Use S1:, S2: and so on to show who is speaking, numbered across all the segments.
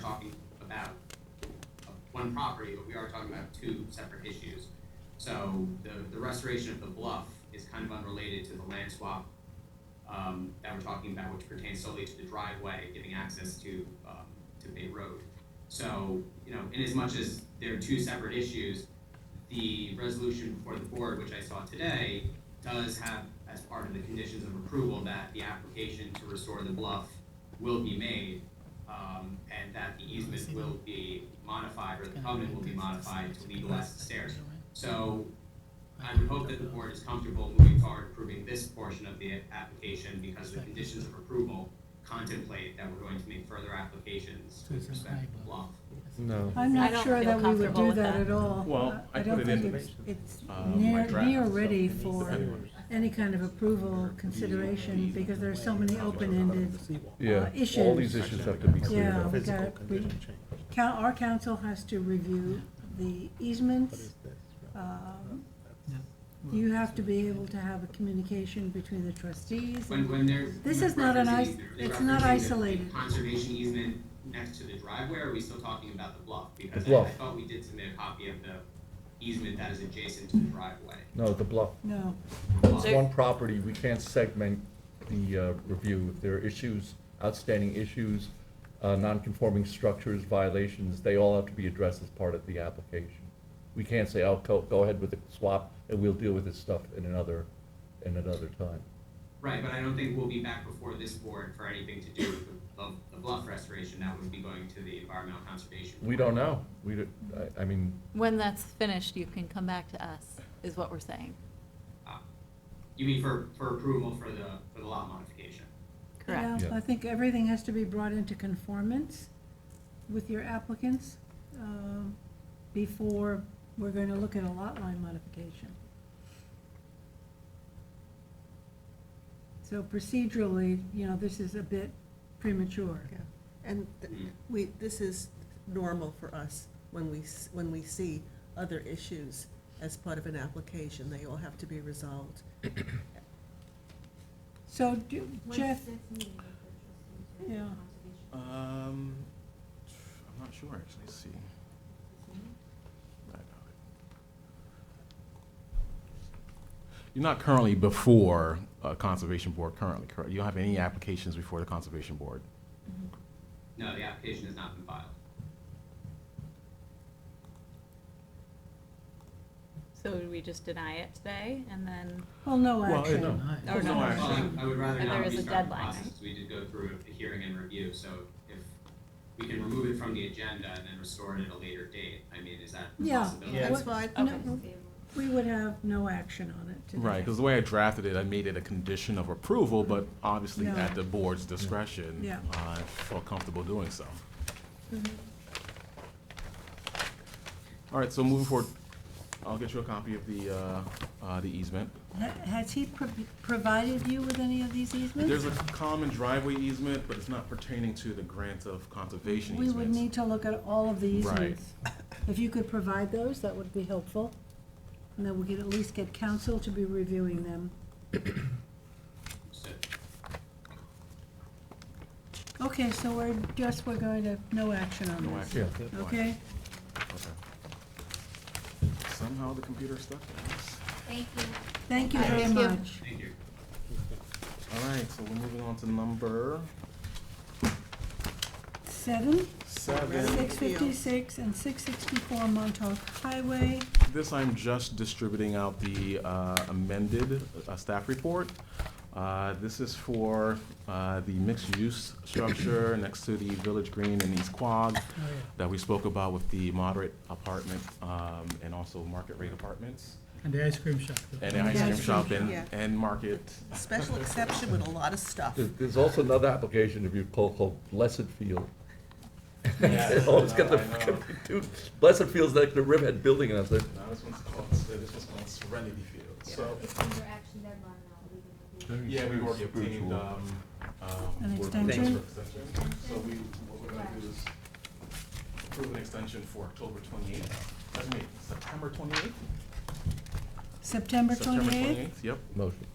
S1: talking about uh, one property, but we are talking about two separate issues. So the, the restoration of the bluff is kind of unrelated to the land swap um, that we're talking about, which pertains solely to the driveway, giving access to, um, to Bay Road. So, you know, in as much as they're two separate issues, the resolution before the board, which I saw today, does have as part of the conditions of approval that the application to restore the bluff will be made, um, and that the easement will be modified, or the covenant will be modified to legalize the stairs. So I would hope that the board is comfortable moving forward approving this portion of the application because the conditions of approval contemplate that we're going to make further applications with respect to the bluff.
S2: No.
S3: I'm
S4: I
S3: not
S4: don't
S3: sure
S4: feel
S3: that we would
S4: comfortable
S3: do
S4: with
S3: that
S4: that.
S3: at all.
S5: Well, I
S3: don't
S5: put it in
S3: think
S5: the-
S3: it's- It's
S5: uh, my
S3: near,
S5: draft,
S3: near
S5: so
S3: ready
S5: it's
S3: for
S5: anyways.
S3: any kind of approval consideration, because there's so many open-ended
S2: Yeah, all these issues have to be cleared
S3: Yeah,
S2: up.
S3: we got, we, coun- our council has to review the easements. um, You have to be able to have a communication between the trustees.
S1: When, when there's.
S3: This
S1: when
S3: is not an
S1: referencing
S3: is-
S1: easement, are they
S3: it's not
S1: referencing the
S3: isolated.
S1: Conservation easement next to the driveway, or are we still talking about the bluff? Because I, I
S2: bluff.
S1: thought we did submit a copy of the easement that is adjacent to the driveway.
S2: No, the bluff,
S3: No,
S1: Bluff.
S2: it's one property, we can't segment the uh, review. If there are issues, outstanding issues, uh, non-conforming structures, violations, they all have to be addressed as part of the application. We can't say, oh, go, go ahead with the swap, and we'll deal with this stuff in another, in another time.
S1: Right, but I don't think we'll be back before this board for anything to do with the, the- the bluff restoration, that would be going to the environmental conservation.
S2: We
S1: Board.
S2: don't know, we, don't- I, I mean,
S4: When that's finished, you can come back to us, is what we're saying.
S1: Um, You mean for, for approval for the, for the lot modification?
S4: Correct.
S3: Yeah,
S2: Yeah.
S3: I think everything has to be brought into conformance with your applicants, um, before we're gonna look at a lot line modification. So procedurally, you know, this is a bit premature.
S6: Yeah, And th- we, this is normal for us when we, s- when we see other issues as part of an application. They all have to be resolved.
S3: So do- Jeff, Yeah.
S5: Um, I'm not sure, actually, Let's see. I know it. You're not currently before uh, Conservation Board currently, correct? You don't have any applications before the Conservation Board?
S1: No, the application has not been filed.
S4: So would we just deny it today and then,
S3: well, no
S5: Well, it-
S3: action.
S5: no.
S4: or
S5: Oh, No,
S4: no?
S5: actually.
S1: Well, I I would rather
S4: And
S1: not
S4: there is a
S1: restart the
S4: deadline,
S1: process,
S4: right?
S1: because we did go through a hearing and review, so if we can remove it from the agenda and then restore it at a later date, I mean, is that a
S3: Yeah.
S1: possibility?
S6: That's why,
S3: No, We would have no action on it today.
S5: Right, because the way I drafted it, I made it a condition of approval, but obviously
S3: No.
S5: at the board's discretion.
S3: Yeah.
S5: uh, I felt comfortable doing so. All right, so moving forward, I'll get you a copy of the, uh, uh, the easement.
S3: Ha- Has he pro- provided you with any of these easements?
S5: There's a common driveway easement, but it's not pertaining to the grant of conservation
S3: We
S5: easements.
S3: would need to look at all of the
S5: Right.
S3: easements. If you could provide those, that would be helpful. And then we could at least get council to be reviewing them.
S1: So,
S3: Okay, so we're just, we're going to, no action on
S5: No
S3: this.
S5: action.
S2: Yeah.
S3: Okay?
S5: Okay. Somehow the computer stuck in this.
S7: Thank you.
S3: Thank you very
S4: Thank you.
S3: much.
S1: thank you.
S5: All right, so we're moving on to number
S3: Seven,
S5: seven.
S3: six fifty-six and six sixty-four Montauk Highway.
S5: This, I'm just distributing out the uh, amended uh, staff report. Uh, This is for uh, the mixed-use structure next to the Village Green in East Quogue that we spoke about with the moderate apartment um, and also market rate apartments
S8: And the ice cream shop.
S5: and the ice
S3: Yeah,
S5: cream
S3: ice
S5: shop
S6: cream
S5: and,
S6: shop.
S5: and market.
S6: special exception with a lot of stuff.
S2: There's, there's also another application if you call, called Blessed Field. Always get the,
S5: I know.
S2: dude, Blessed Field's like the Riverhead Building, and I was like,
S5: Now, this one's called, this one's called Serenity Field. So,
S7: It's under action deadline now. we can review.
S5: yeah, we've already obtained,
S2: uh,
S5: um, um.
S3: An
S5: we're- thanks
S3: extension?
S5: for extension. So we, what we're gonna do is approve an extension for October twenty-eighth, that's me, September twenty-eighth?
S3: September twenty-eighth,
S5: Yep.
S2: motion.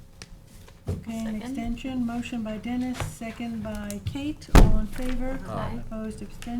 S3: okay, an
S4: Second.
S3: extension, motion by Dennis, second by Kate, all in favor?
S4: Aye.
S3: Opposed, abstentions?